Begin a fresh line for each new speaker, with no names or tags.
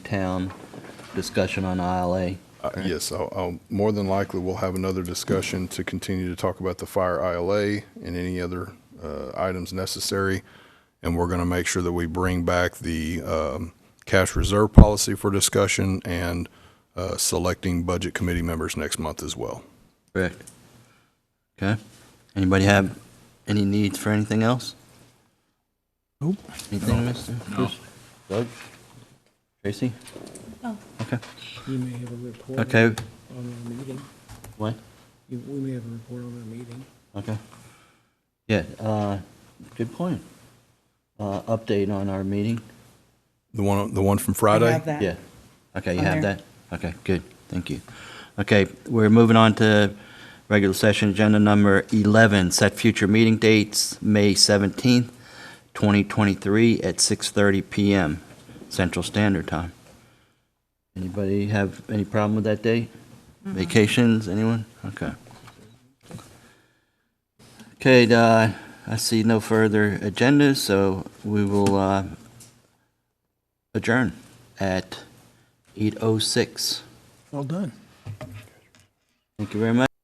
town discussion on ILA.
Uh, Yes, I'll, I'll, more than likely, we'll have another discussion to continue to talk about the fire ILA and any other, uh, items necessary. And we're gonna make sure that we bring back the, um, cash reserve policy for discussion and, uh, selecting budget committee members next month as well.
Correct. Okay. Anybody have any needs for anything else? Nope. Anything, Mr.? No. Doug? Tracy?
No.
Okay.
You may have a report.
Okay.
On our meeting.
What?
You- We may have a report on our meeting.
Okay. Yeah, uh, good point. Uh, update on our meeting?
The one, the one from Friday?
I have that.
Yeah. Okay, you
On
have
there.
that? Okay, good. Thank you. Okay, we're moving on to regular session agenda number 11, set future meeting dates, May 17th, 2023 at 6:30 PM Central Standard Time. Anybody have any problem with that date? Vacations, anyone? Okay. Okay, uh, I see no further agendas, so we will uh, adjourn at 8:06.
Well done.
Thank you very much.